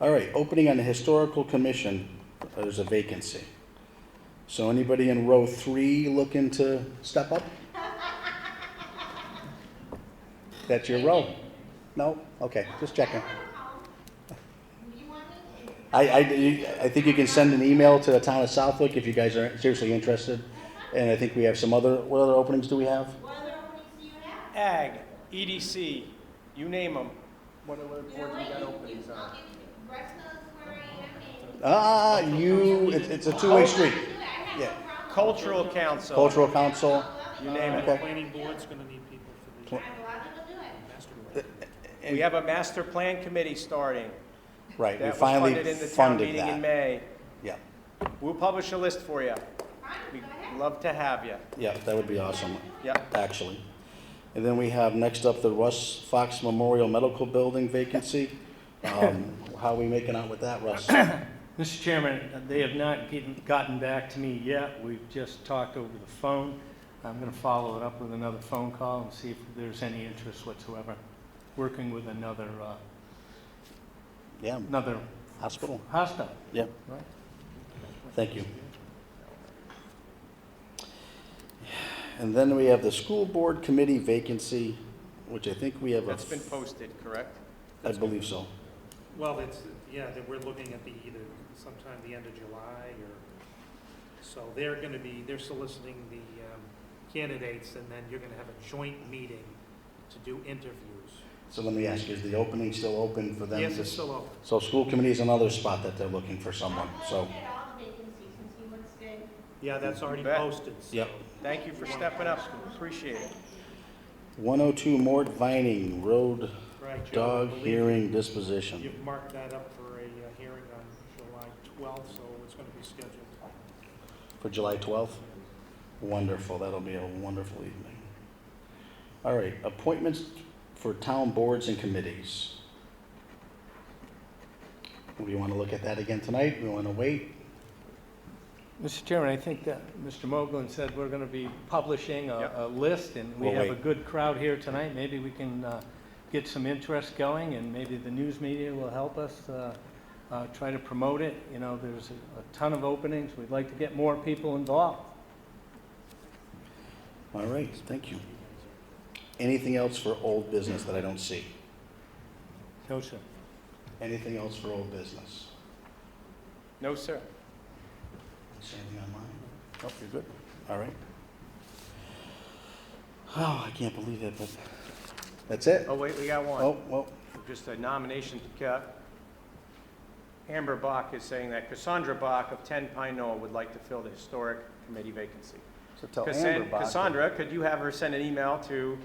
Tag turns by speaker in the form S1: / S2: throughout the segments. S1: All right, opening on the Historical Commission, there's a vacancy. So anybody in row three looking to step up? That's your row? No? Okay, just checking. I, I, I think you can send an email to the town of Southwick if you guys are seriously interested. And I think we have some other, what other openings do we have?
S2: Ag, EDC, you name them. What other boards we got openings on?
S1: Ah, you, it's, it's a two-way street. Yeah,
S2: Cultural Council,
S1: cultural council,
S2: you name
S1: Okay.
S2: it.
S3: Planning board's gonna need people for the master plan.
S2: We have a master plan committee starting.
S1: right, we
S2: That was
S1: finally
S2: funded in the town
S1: funded
S2: meeting in
S1: that.
S2: May.
S1: Yeah,
S2: We'll publish a list for you. We'd love to have you.
S1: yeah, that would be awesome,
S2: Yep.
S1: actually. And then we have next up the Russ Fox Memorial Medical Building vacancy. Um, how are we making out with that, Russ?
S4: Mr. Chairman, they have not getting- gotten back to me yet. We've just talked over the phone. I'm going to follow it up with another phone call and see if there's any interest whatsoever, working with another, uh,
S1: Yeah,
S4: another
S1: hospital,
S4: hospital.
S1: yeah.
S4: Right.
S1: Thank you. And then we have the school board committee vacancy, which I think we have a,
S2: That's been posted, correct?
S1: I believe so.
S3: Well, it's, yeah, that we're looking at the, either sometime the end of July or, so they're gonna be, they're soliciting the um, candidates and then you're gonna have a joint meeting to do interviews.
S1: So let me ask you, is the opening still open for them?
S3: Yes,
S1: to-
S3: it's still open.
S1: So school committee is another spot that they're looking for someone, so.
S3: Yeah, that's already
S2: Bet.
S3: posted, so.
S1: Yep.
S2: Thank you for stepping up. Appreciate it.
S1: 102 Mort Vining Road
S3: Right, Joe, I
S1: Dog
S3: believe
S1: Hearing Disposition.
S3: You've marked that up for a uh, hearing on July twelfth, so it's gonna be scheduled.
S1: for July 12th? Wonderful, that'll be a wonderful evening. All right, appointments for town boards and committees. We want to look at that again tonight, we want to wait.
S4: Mr. Chairman, I think that Mr. Moglen said we're going to be publishing a
S2: Yep.
S4: a list, and we
S1: We'll
S4: have a
S1: wait.
S4: good crowd here tonight. Maybe we can uh, get some interest going, and maybe the news media will help us uh, uh, try to promote it. You know, there's a a ton of openings. We'd like to get more people involved.
S1: All right, thank you. Anything else for old business that I don't see?
S4: No, sir.
S1: Anything else for old business?
S2: No, sir.
S1: See anything online? Oh, you're good. All right. Oh, I can't believe it, but that's it.
S2: Oh, wait, we got one.
S1: Oh, well,
S2: Just a nomination to cut. Amber Bach is saying that Cassandra Bach of 10 Pine Knoll would like to fill the historic committee vacancy.
S1: so tell
S2: Cassan-
S1: Amber about it.
S2: Cassandra, could you have her send an email to,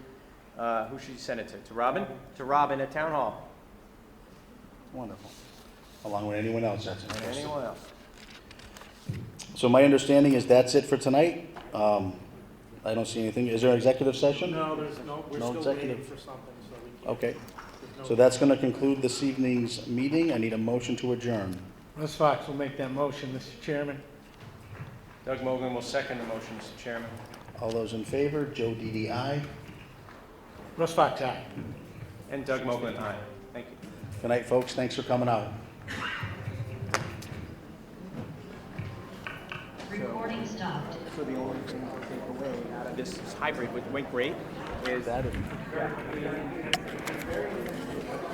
S2: uh, who should you send it to? To Robin? To Robin at Town Hall.
S1: Wonderful. Along with anyone else that's
S2: And
S1: interested.
S2: anyone else?
S1: So my understanding is that's it for tonight. Um, I don't see anything. Is there an executive session?
S3: No, there's no, we're
S1: No
S3: still waiting
S1: executive.
S3: for something, so we can't.
S1: Okay,
S3: there's no-
S1: so that's going to conclude this evening's meeting. I need a motion to adjourn.
S4: Russ Fox will make that motion, Mr. Chairman.
S2: Doug Mogul will second the motion, Mr. Chairman.
S1: All those in favor, Joe DDI.
S4: Russ Fox, aye.
S2: And Doug Mogul, aye. Thank you.
S1: Good night, folks. Thanks for coming out.
S5: Recording stopped.
S2: So the only thing to take away out of this hybrid with Wink Rate is
S1: That is-